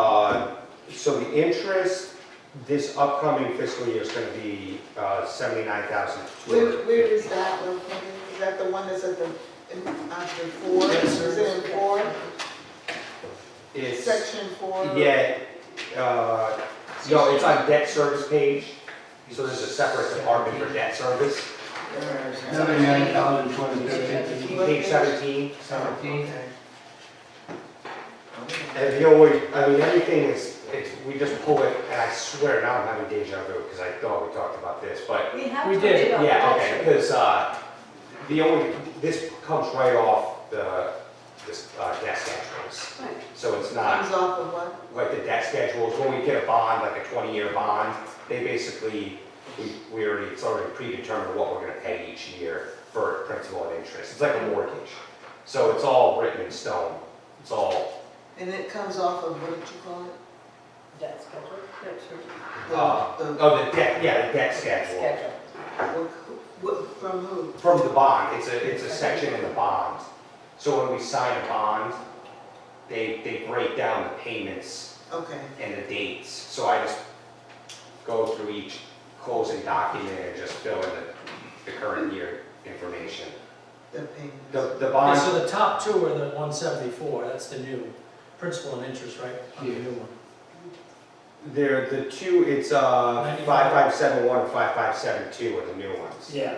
Uh, the interest this upcoming fiscal year is gonna be uh, seventy-nine thousand two Where, hundred. where is that located? Is that the one that's at the, in, after four? Yes, sir. Is it in four, It's, section four? yeah, uh, no, it's on debt service page, so there's a separate department for debt service, Seventy-nine thousand two hundred fifty. page seventeen. Seventeen. And you know, we, I mean, everything is, it's, we just pull it, and I swear now I'm having deja vu, because I thought we talked about this, but We have We to did, wait on Yeah, that. okay, because, uh, the only, this comes right off the, this, uh, debt schedules. Right. So it's Comes not off of what? like the debt schedules, when we get a bond, like a twenty-year bond, they basically, we, we already, it's already predetermined what we're gonna pay each year for principal and interest. It's like a mortgage. So it's all written in stone. It's all, And it comes off of, what did you call it? That's correct. That's correct. The- Uh, the- oh, the debt, yeah, the debt schedule. Schedule. what- what- From who? From the bond, it's a, it's a section in the bond. So when we sign a bond, they, they break down the payments Okay, and the dates. So I just go through each closing document and just fill in the, the current year information. the payments. The, the Okay, bond, so the top two are the one seventy-four, that's the new, principal and interest, right? On the new one. they're the two, it's, uh, five five seven one and five five seven two are the new ones. Yeah.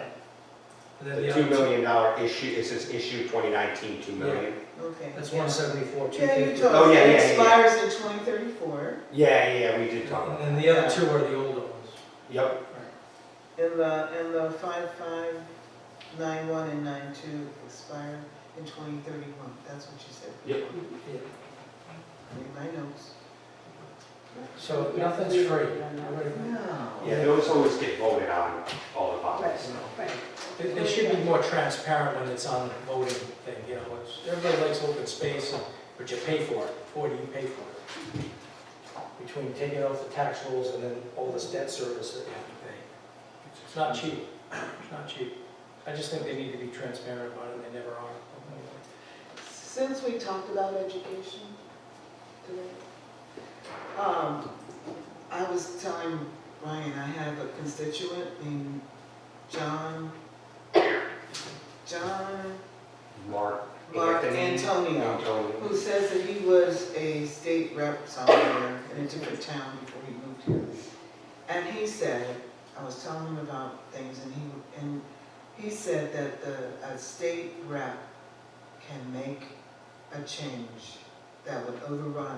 And then The the two other two, million dollar issue, it says issue twenty nineteen, two million. Okay. that's one seventy-four, two Yeah, you fifty. told Oh, us yeah, it yeah, yeah, yeah. expires in twenty thirty-four, Yeah, yeah, we did talk And about that. then the other two are the older ones. Yep, and the, and the five-five, nine-one and nine-two expire in twenty thirty-one, that's what you said. yep. Yeah. In my notes. So nothing's free. Everybody- Yeah, those always get voted on, all the bonds. Right. It, it should be more transparent when it's on the voting thing, you know, it's, everybody likes open space, and- but you pay for it, what do you pay for it? Between taking off the tax rolls and then all this debt service that you have to pay. It's not cheap, it's not cheap. I just think they need to be transparent about it, and they never are. Since we talked about education today, um, I was telling Brian, I have a constituent named John, John Mark. Mark Anthony. Antonio, Antonio. who says that he was a state rep somewhere in a different town before he moved here. And he said, I was telling him about things and he, and he said that the, a state rep can make a change that would override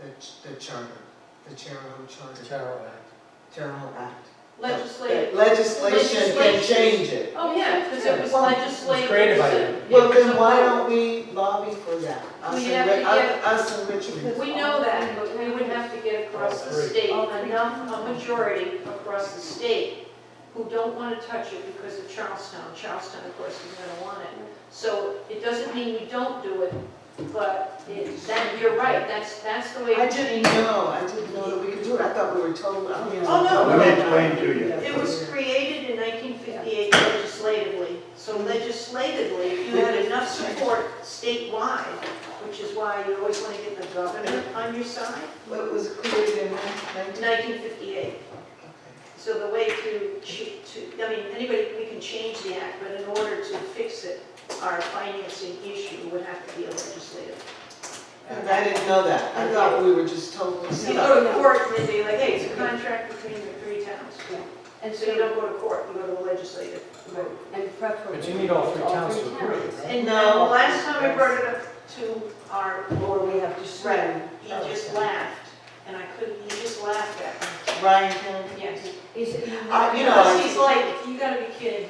the, ch- the charter, the Charahoe It's Charter, a terrible act. Charahoe Act. Legislative. Legislation can Legislation. change it. Oh, yeah, because it was Well, legislative. it's created by so- you. Well, then why don't we lobby for that? Us We and have Ri- to us- Us and Richmond. We know that, but we would have to get across the state, enough, a majority across the state who don't want to touch it because of Charlestown. Charlestown, of course, is going to want it. So it doesn't mean we don't do it, but it- that, you're right, that's, that's the way. I didn't know, I didn't know that we could do it, I thought we were told. I don't even Oh, no, know. no. Let me explain to you. It was created in 1958 legislatively, so legislatively, if you had enough support statewide, which is why you always want to get the governor on your side, What was created in nineteen? 1958. So the way to, ch- to, I mean, anybody, we can change the act, but in order to fix it, our financing issue would have to be a legislative. And I didn't know that, I thought we were just told. this So you stuff. go to court and they'd be like, hey, it's a contract between the three towns. And so you don't go to court, you go to the legislative. And preferably. But you need all three towns to agree, towns. right? And No. now, the last time we brought it up to our Or we have to rep, swear. he just laughed, and I couldn't, he just laughed at me. Ryan Kennedy. Yes. Is Uh, it? I- you know, Because he's like, you gotta be kidding.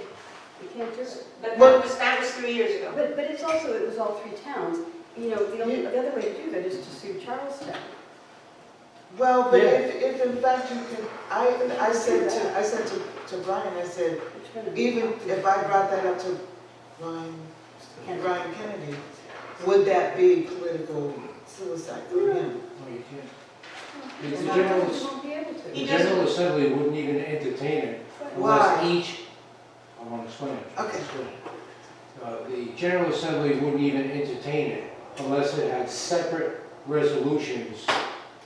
You can't do it. But Well- that was, that was three years ago. But, but it's also, it was all three towns. You know, the only, the other way to do that is to sue Charlestown. Well, but Yeah. if, if in fact you can, I, I said to, I said to, to Brian, I said, It's gonna be- even if I brought that up to Ryan Kennedy. Brian Kennedy, would that be political suicide for him? No, you can't. And The I General, don't- we won't be able to. the General Assembly wouldn't even entertain it unless Why? each, I want to explain. it. Okay. Explain it. Uh, The General Assembly wouldn't even entertain it unless it had separate resolutions